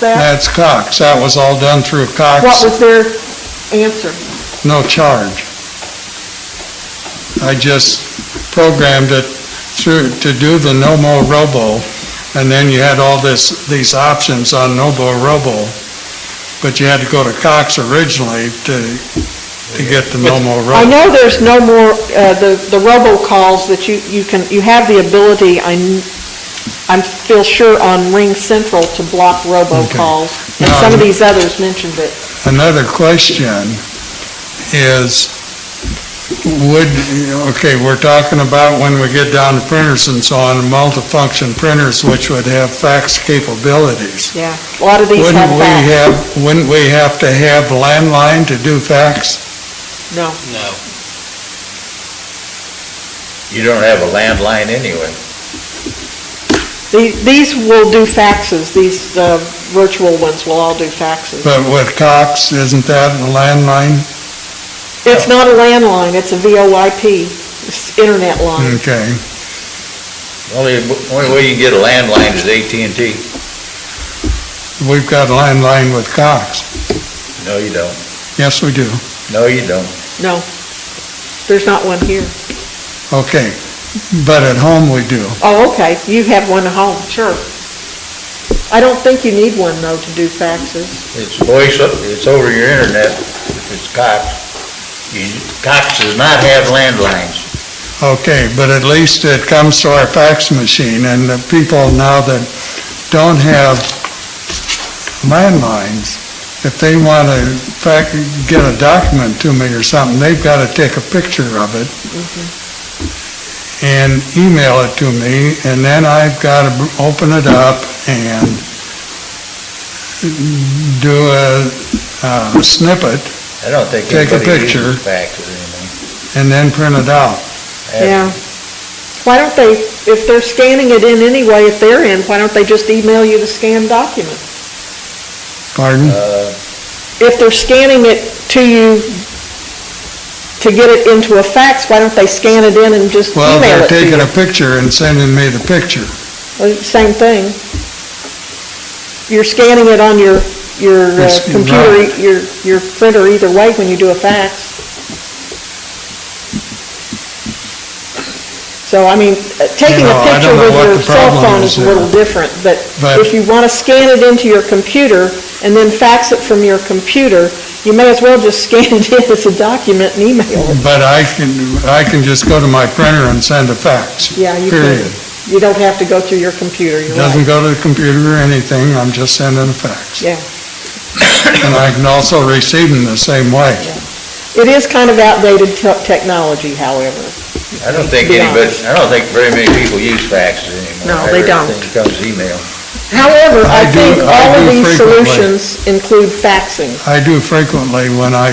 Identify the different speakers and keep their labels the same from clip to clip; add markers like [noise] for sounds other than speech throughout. Speaker 1: that?
Speaker 2: That's Cox. That was all done through
Speaker 1: What
Speaker 2: Cox,
Speaker 1: was their answer?
Speaker 2: no charge. I just programmed it through, to do the no more robo, and then you had all this, these options on no more robo, but you had to go to Cox originally to, to get the no more
Speaker 1: I
Speaker 2: robo.
Speaker 1: know there's no more, uh, the, the robocalls that you, you can, you have the ability, I'm, I'm feel sure on Ring Central to block robocalls. And some of these others mentioned it.
Speaker 2: Another question is, would, okay, we're talking about when we get down to printers and so on, multifunction printers which would have fax capabilities.
Speaker 1: Yeah. A lot of these have
Speaker 2: Wouldn't we
Speaker 1: that.
Speaker 2: have, wouldn't we have to have landline to do fax?
Speaker 1: No.
Speaker 3: No.
Speaker 4: You don't have a landline anyway.
Speaker 1: The- These will do faxes, these uh, virtual ones will all do faxes.
Speaker 2: But with Cox, isn't that a landline?
Speaker 1: It's not a landline, it's a VoIP, it's internet line.
Speaker 2: Okay,
Speaker 4: Only, only way you can get a landline is AT&T.
Speaker 2: we've got landline with Cox.
Speaker 4: No, you don't.
Speaker 2: Yes, we do.
Speaker 4: No, you don't.
Speaker 1: No,
Speaker 2: Hmm.
Speaker 1: there's not one here.
Speaker 2: Okay, but at home we do.
Speaker 1: Oh, okay, you have one at home, sure. I don't think you need one, though, to do faxes.
Speaker 4: It's voice, it's over your internet. It's Cox. You, Cox does not have landlines.
Speaker 2: Okay, but at least it comes to our fax machine, and the people now that don't have landlines, if they want to fac get a document to me or something, they've got to take a picture of it and email it to me, and then I've got to open it up and do a uh, snippet
Speaker 4: I don't think
Speaker 2: Take a
Speaker 4: anybody
Speaker 2: picture.
Speaker 4: uses fax or anything.
Speaker 2: and then print it out.
Speaker 1: Yeah. Why don't they, if they're scanning it in anyway, if they're in, why don't they just email you the scanned document?
Speaker 2: Pardon?
Speaker 4: Uh,
Speaker 1: If they're scanning it to you to get it into a fax, why don't they scan it in and just
Speaker 2: Well,
Speaker 1: email
Speaker 2: they're
Speaker 1: it to
Speaker 2: taking
Speaker 1: you?
Speaker 2: a picture and sending me the picture.
Speaker 1: Well, Same thing. You're scanning it on your, your uh,
Speaker 2: It's-
Speaker 1: computer,
Speaker 2: right.
Speaker 1: your, your printer either way when you do a fax. So, I mean, uh, taking a
Speaker 2: You know, I
Speaker 1: picture
Speaker 2: don't know
Speaker 1: with
Speaker 2: what
Speaker 1: your
Speaker 2: the
Speaker 1: cell
Speaker 2: problem
Speaker 1: phone
Speaker 2: is
Speaker 1: is a
Speaker 2: there.
Speaker 1: little different, but
Speaker 2: But-
Speaker 1: if you want to scan it into your computer and then fax it from your computer, you may as well just [laughs] scan it in as a document and email it.
Speaker 2: But I can, I can just go to my printer and send a fax.
Speaker 1: Yeah, you
Speaker 2: Period.
Speaker 1: could. You don't have to go through your computer, you're right.
Speaker 2: Doesn't go to the computer or anything, I'm just sending a fax.
Speaker 1: Yeah.
Speaker 2: And I can also receive them the same way.
Speaker 1: It is kind of outdated te- technology, however.
Speaker 4: I don't think
Speaker 1: Be
Speaker 4: anybody,
Speaker 1: honest.
Speaker 4: I don't think very many people use faxes anymore.
Speaker 1: No, they don't.
Speaker 4: Everything comes email.
Speaker 1: However, I
Speaker 2: I do-
Speaker 1: think
Speaker 2: I
Speaker 1: all of
Speaker 2: do
Speaker 1: these
Speaker 2: frequently.
Speaker 1: solutions include faxing.
Speaker 2: I do frequently when I,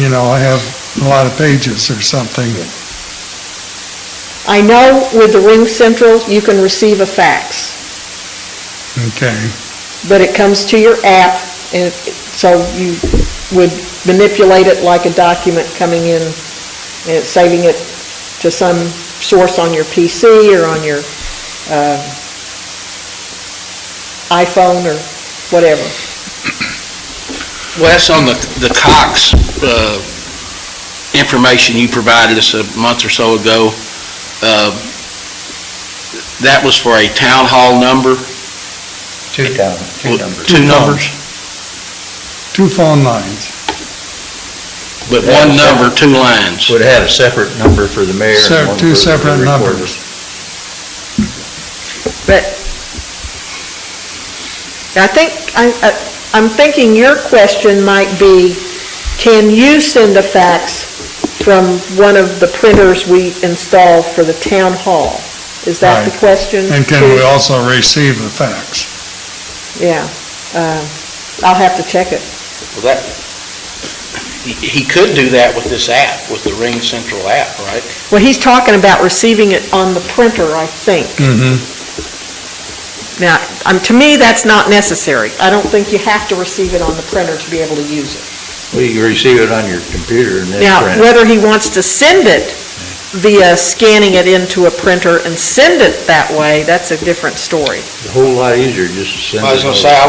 Speaker 2: you know, I have a lot of pages or something.
Speaker 1: I know with the Ring Central, you can receive a fax,
Speaker 2: Okay,
Speaker 1: but it comes to your app, and it- so you would manipulate it like a document coming in, and it's saving it to some source on your PC or on your uh, iPhone or whatever.
Speaker 3: Wes, on the, the Cox, uh, information you provided us a month or so ago, uh, that was for a town hall number?
Speaker 4: Two town, two numbers.
Speaker 3: Two numbers,
Speaker 2: two phone lines,
Speaker 3: but one number, two lines.
Speaker 4: Would have a separate number for the mayor
Speaker 2: Sep-
Speaker 4: and one for
Speaker 2: two
Speaker 4: the
Speaker 2: separate
Speaker 4: recorder.
Speaker 2: numbers.
Speaker 1: But I think, I- I- I'm thinking your question might be, can you send a fax from one of the printers we installed for the town hall? Is that the
Speaker 2: Right.
Speaker 1: question?
Speaker 2: and can we also receive the fax?
Speaker 1: Yeah. Uh, I'll have to check it.
Speaker 3: Well, that, he, he could do that with this app, with the Ring Central app, right?
Speaker 1: Well, he's talking about receiving it on the printer, I think.
Speaker 2: Mm-hmm.
Speaker 1: Now, um, to me, that's not necessary. I don't think you have to receive it on the printer to be able to use it.
Speaker 4: Well, you can receive it on your computer and then
Speaker 1: Now,
Speaker 4: print it.
Speaker 1: whether he wants to send it via scanning it into a printer and send it that way, that's a different story.
Speaker 4: a whole lot easier just to send it.
Speaker 3: I was gonna
Speaker 4: over.
Speaker 3: say, I